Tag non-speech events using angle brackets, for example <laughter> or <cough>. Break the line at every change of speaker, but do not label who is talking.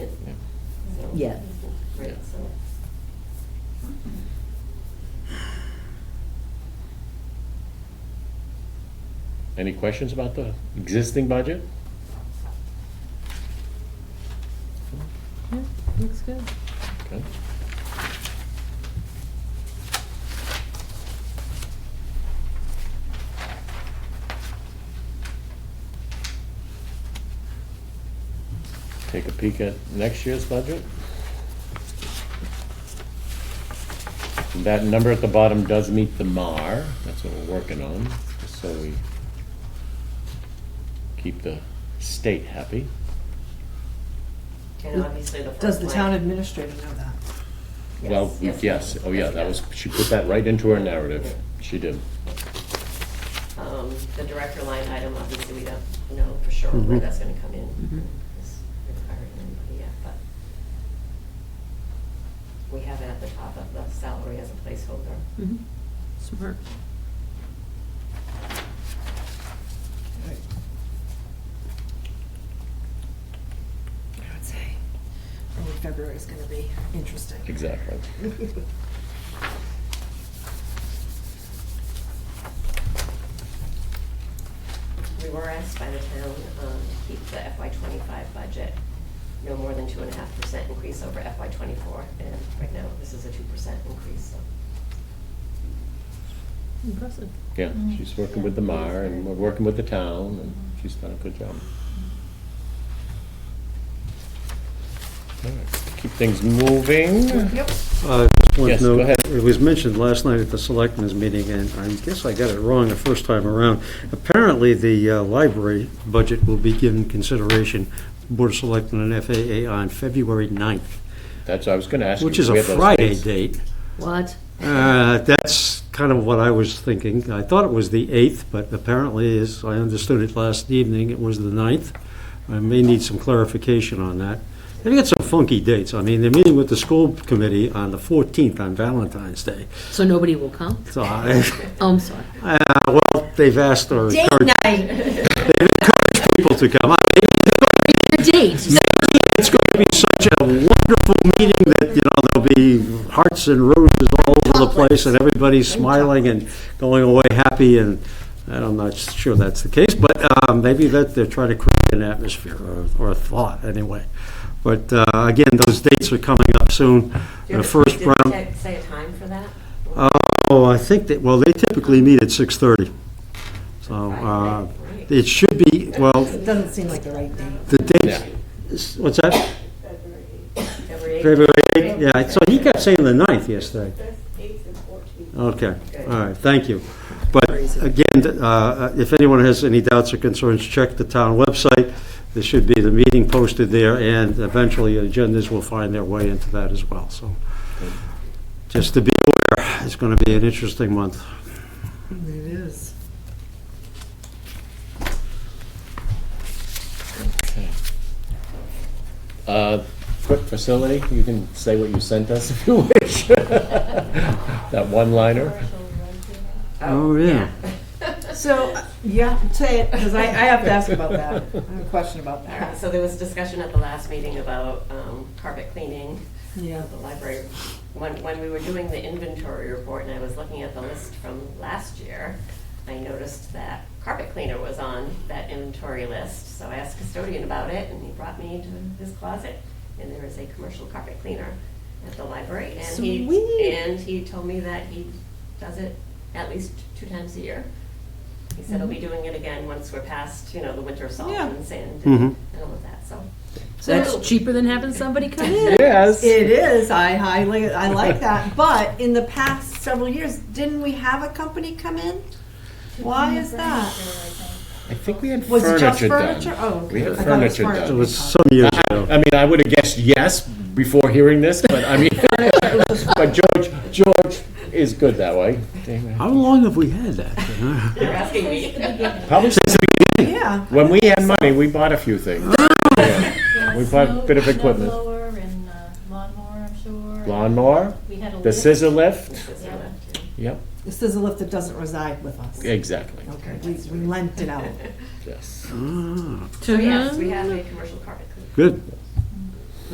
Yeah.
Right, so.
Any questions about the existing budget?
Yeah, looks good.
Okay. Take a peek at next year's budget. That number at the bottom does meet the MAR, that's what we're working on, just so we keep the state happy.
And obviously the front
Does the town
line-
administrator know that?
Well,
Yes.
yes, oh yeah, that was, she put that right into her narrative, she did.
Um, the director line item, obviously, we don't know for sure
Mm-hmm.
where
Mhm.
that's gonna come in.
Mhm.
It's requiring anybody yet, but we have it at the top of the salary as a placeholder.
Smart.
I would say. Early February is gonna be interesting.
Exactly.
We were asked by the town, um, to keep the FY twenty-five budget no more than two and a half percent increase over FY twenty-four, and right now, this is a two percent increase, so.
Impressive.
Yeah, she's working with the mayor and we're working with the town and she's done a good job. All right, Keep things moving.
Yep.
Uh, Just one
Yes, go
note,
ahead.
it was mentioned last night at the selectmen's meeting, and I guess I got it wrong the first time around. Apparently, the uh, library budget will be given consideration, Board of Selectmen and FAA on February 9th,
That's, what I was gonna ask you.
which is
we
a
have those
Friday
dates.
date.
What?
Uh, That's kind of what I was thinking. I thought it was the 8th, but apparently, as I understood it last evening, it was the 9th. I may need some clarification on that. They've got some funky dates. I mean, they're meeting with the school committee on the 14th on Valentine's Day.
So nobody will come?
So I, <laughs>
Oh, I'm sorry.
well, they've asked or encouraged people to come. I-
A date.
It's going to be such a wonderful meeting that, you know, there'll be hearts and roses all over the place and everybody's smiling and going away happy and, and I'm not sure that's the case, but um, maybe that they're trying to create an atmosphere or, or a thought anyway. But uh, again, those dates are coming up soon. The first
Did we
round,
ta- say a time for that?
oh, I think that, well, they typically meet at 6:30. So uh,
Friday, right.
it should be, well,
It doesn't seem like the right date.
The
Yeah.
date, is- what's that?
February eighth?
February 8th? Yeah, so he kept saying the 9th yesterday. Okay, all right, thank you. But again, th- uh, uh, if anyone has any doubts or concerns, check the town website. There should be the meeting posted there, and eventually agendas will find their way into that as well, so. Just to be aware, it's going to be an interesting month.
It is.
Uh, Quick facility, you can say what you sent us if you wish. <laughs> That one-liner.
Oh, yeah.
So, uh, yeah, say it, because I, I have to ask about that. I have a question about that.
Uh, So there was discussion at the last meeting about um, carpet cleaning
Yeah.
of the library. When, when we were doing the inventory report and I was looking at the list from last year, I noticed that carpet cleaner was on that inventory list. So I asked custodian about it and he brought me to his closet and there is a commercial carpet cleaner at the library. And he,
Sweet.
and he told me that he does it at least two times a year. He said he'll be doing it again once we're past, you know, the winter salt
Mm-hmm. Yeah.
and sand
Mhm.
and and all of that, so.
So that's cheaper than having somebody come in.
Yes.
It is, I highly, I like that, but in the past several years, didn't we have a company come in? Why is that?
I think we had
Was it
furniture
just
done.
furniture? Oh,
We
okay.
had
I thought it was
furniture
furniture.
It
done.
was some years ago.
I mean, I would have guessed yes before hearing this, but I mean,
<laughs>
but George, George is good that way.
How long have we had that?
You're asking me.
Probably since the beginning.
Yeah,
When we had money, we bought a few
<laughs>
things. Yeah. We bought a bit of equipment.
Blower and uh, lawnmower, I'm sure.
Lawnmower,
We had a
the
lift.
scissor lift.
Yeah.
Yep,
this is a lift that doesn't reside with us.
exactly.
Okay, we we lent it out.
Yes.
So yes, we have a commercial carpet cleaner.
Good,